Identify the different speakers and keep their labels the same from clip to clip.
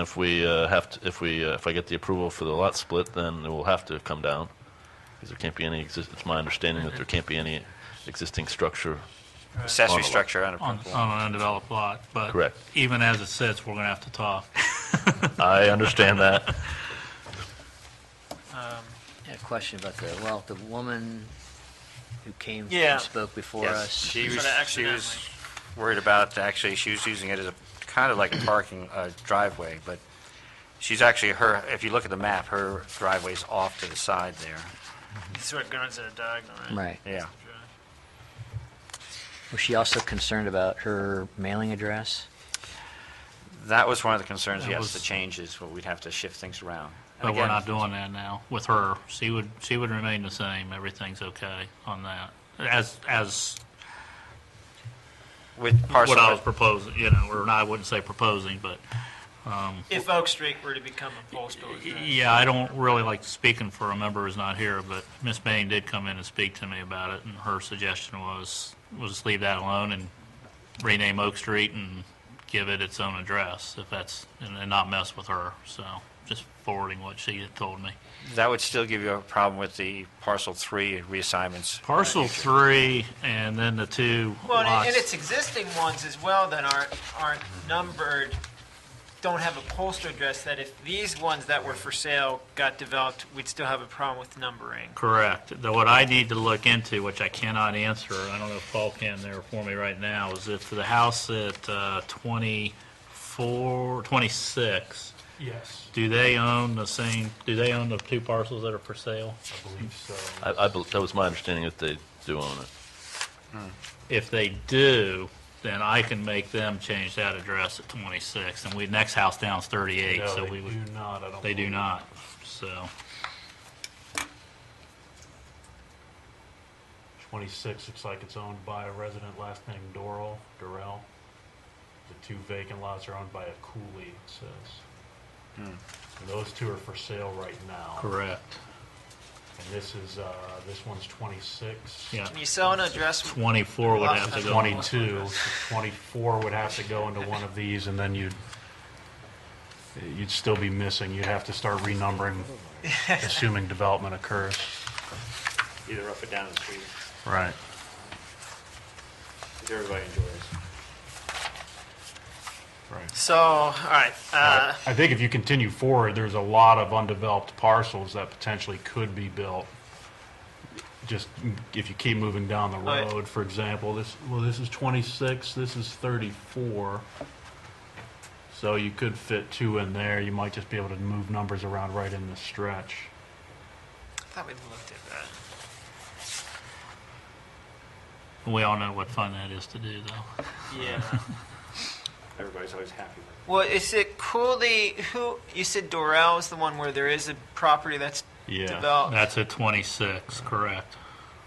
Speaker 1: If we uh, have to, if we, uh, if I get the approval for the lot split, then it will have to come down, because there can't be any, exist- it's my understanding that there can't be any existing structure.
Speaker 2: Accessory
Speaker 1: On a-
Speaker 2: structure on a
Speaker 3: on,
Speaker 2: principal.
Speaker 3: on an undeveloped lot, but.
Speaker 1: Correct.
Speaker 3: Even as it sits, we're gonna have to talk.
Speaker 1: I understand that.
Speaker 4: Yeah, question about the, well, the woman who came
Speaker 5: Yeah.
Speaker 4: and spoke
Speaker 3: uh,
Speaker 4: before
Speaker 2: Yes,
Speaker 4: us.
Speaker 2: she was,
Speaker 5: Sort of
Speaker 2: she was
Speaker 5: accidentally.
Speaker 2: worried about, actually, she was using it as a, kind of like a parking uh, driveway, but she's actually, her, if you look at the map, her driveway's off to the side there.
Speaker 5: This is what guns at a diagonal, right?
Speaker 4: Right.
Speaker 2: Yeah.
Speaker 4: Was she also concerned about her mailing address?
Speaker 2: That was one of the concerns,
Speaker 3: That
Speaker 2: yes,
Speaker 3: was-
Speaker 2: the changes, well, we'd have to shift things around. And
Speaker 3: But we're
Speaker 2: again,
Speaker 3: not doing that now with her. She would, she would remain the same. Everything's okay on that. As, as
Speaker 2: With parcel,
Speaker 3: what I was proposing, you know, or I wouldn't say proposing, but,
Speaker 5: If Oak Street were to become a full storage
Speaker 3: y-
Speaker 5: unit.
Speaker 3: yeah, I don't really like speaking for a member who's not here, but Miss Bain did come in and speak to me about it, and her suggestion was, we'll just leave that alone and rename Oak Street and give it its own address, if that's, and and not mess with her, so just forwarding what she had told me.
Speaker 2: that would still give you a problem with the parcel three reassignments.
Speaker 3: Parcel three, and then the two
Speaker 5: Well, and- and its
Speaker 3: lots.
Speaker 5: existing ones as well that aren't, aren't numbered, don't have a postal address, that if these ones that were for sale got developed, we'd still have a problem with numbering.
Speaker 3: Correct. Though what I need to look into, which I cannot answer, I don't know if Paul can there for me right now, is if the house at uh, 24, 26,
Speaker 6: Yes,
Speaker 3: do they own the same, do they own the two parcels that are for sale?
Speaker 6: I believe so.
Speaker 1: I, I, bel- that was my understanding that they do own it.
Speaker 3: If they do, then I can make them change that address at 26, and we, next house down's 38,
Speaker 6: No,
Speaker 3: so
Speaker 6: they
Speaker 3: we would,
Speaker 6: do not, I don't.
Speaker 3: they do
Speaker 6: believe.
Speaker 3: not, so.
Speaker 6: 26, it's like it's owned by a resident, last name Doral, Durrell. The two vacant lots are owned by a Cooley, it says. And those two are for sale right now.
Speaker 3: Hmm. Correct.
Speaker 6: And this is, uh, this one's 26.
Speaker 3: Yeah.
Speaker 5: Can you sell an address?
Speaker 3: 24 would have to go on.
Speaker 6: 22, 24 would have to go into one of these, and then you'd, you'd still be missing. You'd have to start renumbering, assuming development occurs.
Speaker 2: Either up or down the street,
Speaker 6: Right.
Speaker 2: because everybody enjoys.
Speaker 6: Right.
Speaker 5: So, all right, uh,
Speaker 6: I think if you continue forward, there's a lot of undeveloped parcels that potentially could be built. Just if you keep moving down the
Speaker 5: Right.
Speaker 6: road, for example, this, well, this is 26, this is 34. So you could fit two in there. You might just be able to move numbers around right in the stretch.
Speaker 5: I thought we looked at that.
Speaker 3: We all know what fun that is to do, though.
Speaker 5: Yeah.
Speaker 2: Everybody's always happy with
Speaker 5: Well, is it Cooley, who, you said Doral is the one where there is a property that's
Speaker 6: Yeah.
Speaker 5: developed?
Speaker 3: That's at 26, correct?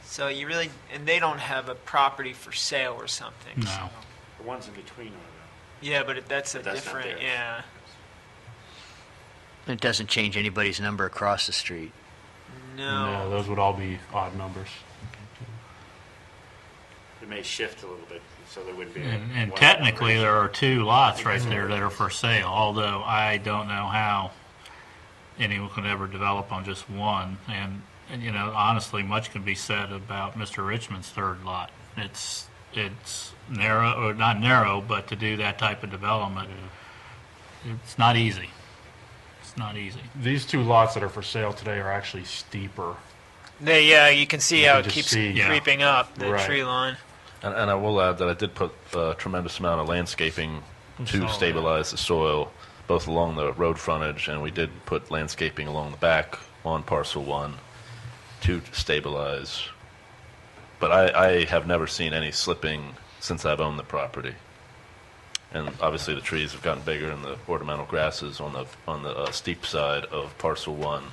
Speaker 5: So you really, and they don't have a property for sale or something?
Speaker 3: No.
Speaker 2: it. The ones in between are uh,
Speaker 5: Yeah, but it- that's a
Speaker 2: But that's not
Speaker 5: different,
Speaker 2: theirs.
Speaker 5: yeah.
Speaker 4: It doesn't change anybody's number across the street.
Speaker 6: No,
Speaker 5: No.
Speaker 6: those would all be odd numbers.
Speaker 2: the, it may shift a little bit, so there wouldn't be. a
Speaker 3: And and
Speaker 2: wide
Speaker 3: technically,
Speaker 2: variation.
Speaker 3: there are two lots right there that are for sale, although I don't know how anyone could ever develop on just one. And, and, you know, honestly, much can be said about Mr. Richmond's third lot. It's, it's narrow, or not narrow, but to do that type of development, it's not easy. It's not easy.
Speaker 6: These two lots that are for sale today are actually steeper.
Speaker 5: They, yeah, you can see
Speaker 6: You
Speaker 5: how
Speaker 6: can
Speaker 5: it
Speaker 6: just
Speaker 5: keeps
Speaker 6: see.
Speaker 3: Yeah.
Speaker 5: creeping up, the
Speaker 6: Right.
Speaker 5: tree line.
Speaker 1: And, and I will add that I did put a tremendous amount of landscaping
Speaker 3: saw
Speaker 1: to
Speaker 3: that.
Speaker 1: stabilize the soil, both along the road frontage, and we did put landscaping along the back on parcel one to stabilize. But I, I have never seen any slipping since I've owned the property. And obviously, the trees have gotten bigger, and the ornamental grasses on the on the uh, steep side of parcel one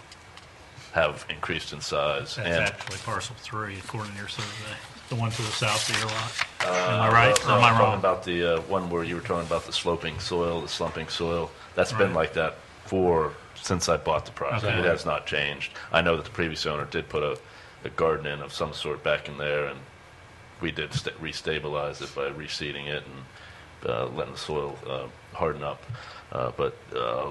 Speaker 1: have increased in size.
Speaker 3: That's
Speaker 1: and
Speaker 3: actually parcel three, according to your survey, the one to the south of your lot. Am I right, or am I
Speaker 1: Uh, I'm Talking
Speaker 3: wrong?
Speaker 1: about the uh, one where you were talking about the sloping soil, the slumping soil. That's been
Speaker 3: Right.
Speaker 1: like that for since I bought the property.
Speaker 3: Okay.
Speaker 1: It has not changed. I know that the previous owner did put a, a garden in of some sort back in there, and we did sta restabilize it by reseeding it and uh, letting the soil uh, harden up. Uh, but uh,